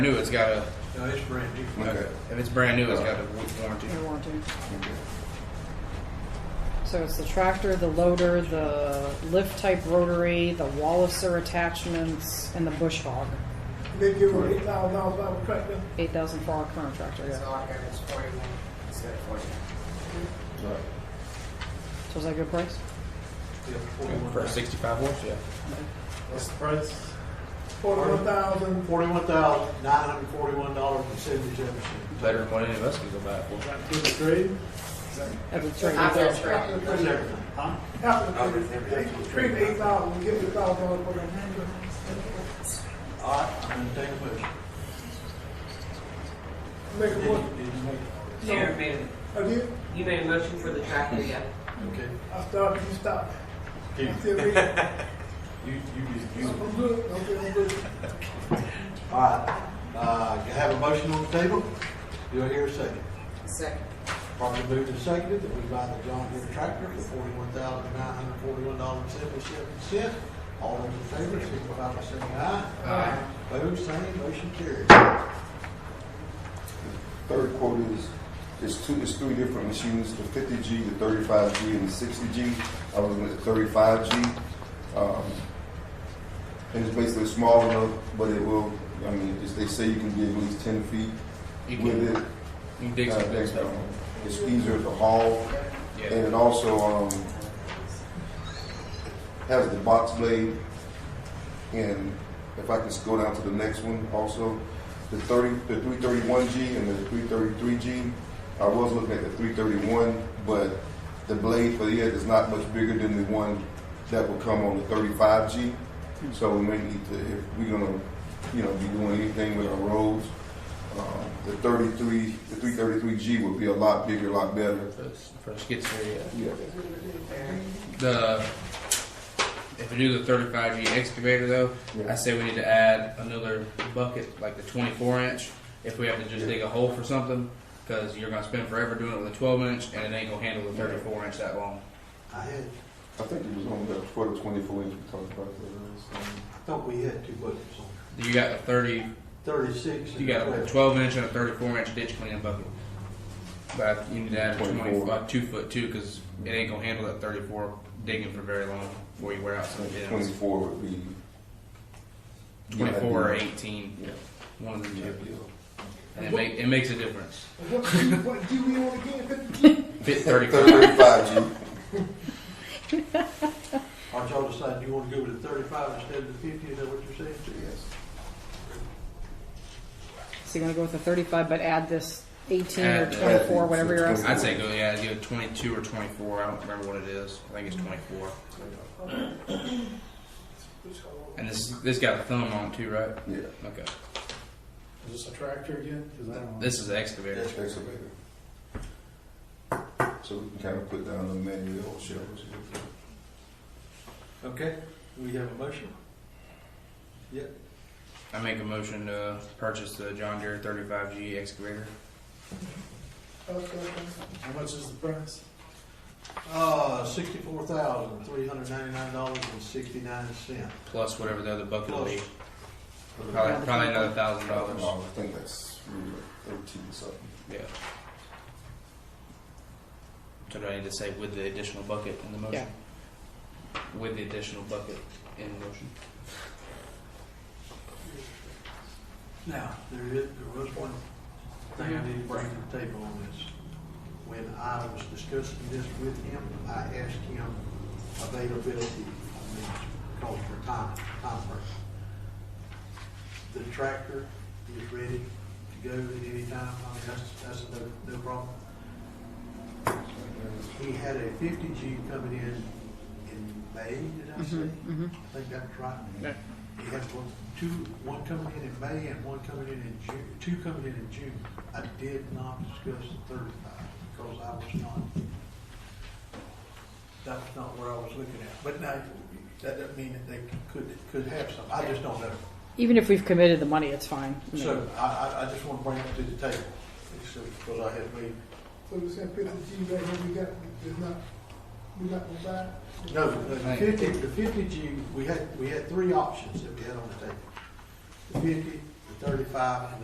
New, it's got a. No, it's brand new. Okay. If it's brand new, it's got a wa- warranty. Your warranty. So it's the tractor, the loader, the lift type rotary, the Walliser attachments, and the bush hog. They give her eight thousand dollars out of tractor. Eight thousand for our current tractor, It's yeah. all good, it's forty-one instead of forty-nine. So is that a good price? Yeah, 41. For a 65 horse, yeah. What's the price? Forty-one thousand, Forty-one thousand, nine hundred and forty-one dollars and seventy-seven cents. Better than what any of us could go buy it for. Two to three? At the trade. After the after trade, the That's trade, everything. Huh? after the trade, trade eight thousand, give her a thousand dollars for the handler. All right, I'm gonna take a motion. Make Did a you, motion, did you make Sharon made, it. I did, you made a motion for the tractor, yeah. it? I started, you stopped. Okay. I said, wait, I'm You, you, you, you. I'm good, I'm good, I'm good. All right, uh, you have a motion on the table? You'll hear a second. Second. Properly moved and seconded that we buy the John Deere tractor for forty-one thousand nine hundred forty-one dollars and seventy-seven cents. All those in favor, signify by saying aye. Aye. Opposed, same, motion carried. Third quote is, it's two, it's three different machines, the fifty G, the thirty-five G, and the sixty G. I was looking at the thirty-five G. Um, and it's basically small enough, but it will, I mean, it's, they say you can dig at least ten feet You can, with it. you can dig Uh, some big there's stuff. no- It's easier to haul, and Yeah. it also, um, has the box blade. And if I can just go down to the next one also, the thirty, the three thirty-one G and the three thirty-three G. I was looking at the three thirty-one, but the blade for it is not much bigger than the one that will come on the thirty-five G. So we may need to, if we're gonna, you know, be doing anything with our roads, um, the thirty-three, the three thirty-three G would be a lot bigger, a lot better. For, for the skid steer, yeah. Yeah. The if we do the 35G excavator though, Yeah. I say we need to add another bucket, like the 24 inch, if we have to just Yeah. dig a hole for something, because you're gonna spend forever doing it with a 12 inch, and it ain't gonna handle the 34 inch that long. I had, I think it was on the, for the twenty-four inch we talked about that. so. I thought we had two budgets on, You got the 30, thirty-six you and got a twelve. 12 inch and a 34 inch ditch cleaning bucket. But you need to add 24. 25, two foot two, because it ain't gonna handle that 34 digging for very long before you wear out some pins. 24 would be. 24 or 18, Yeah. one of the Yeah. two. And it, make, it makes a difference. What, G- what G we on again, fifty G? Fit 35. 35G. Aren't y'all deciding you want to go with the thirty-five instead of the fifty, is that what you're saying? Yes. So you're gonna go with the thirty-five, but add this eighteen or Add the- twenty-four, whatever you're asking. I'd say go, yeah, either 22 or 24. I don't remember what it is. I think it's 24. And this this got a thumb on it too, right? Yeah. Okay. Is this a tractor again? 'Cause I don't know. This is the excavator. Yes. Excavator. So we can kind of put down the manual shelves. Okay, we have a motion. Yep, I make a motion to purchase the John Deere 35G excavator. How much is the price? uh, sixty-four thousand, three hundred ninety-nine dollars and sixty-nine cents. Plus whatever the other bucket will be. I Probably, probably another thousand dollars. think that's really like 13 something. Yeah. So do I need to say with the additional bucket in the motion? With the additional bucket in the motion. Now, there is, there was one thing I need to bring to the table on this. When I was discussing this with him, I asked him availability, I mean, calls for time, time frame. The tractor is ready to go at any time, I mean, that's, that's no, no problem. He had a fifty G coming in in May, did I say? mhm. I think that's right. Yeah. You have one, two, one coming in in May and one coming in in June, two coming in in June. I did not discuss the thirty-five because I was not, that was not where I was looking at. But now, that doesn't mean that they could, could have some. I just don't know. Even if we've committed the money, it's fine. I mean, So I, I, I just want to bring it to the table. It's, uh, Because I had made, So we saying fifty G right here, we got, it's not, we not gonna buy it? no, the fifty, the fifty G, we had, we had three options that we had on the table. The fifty, the thirty-five and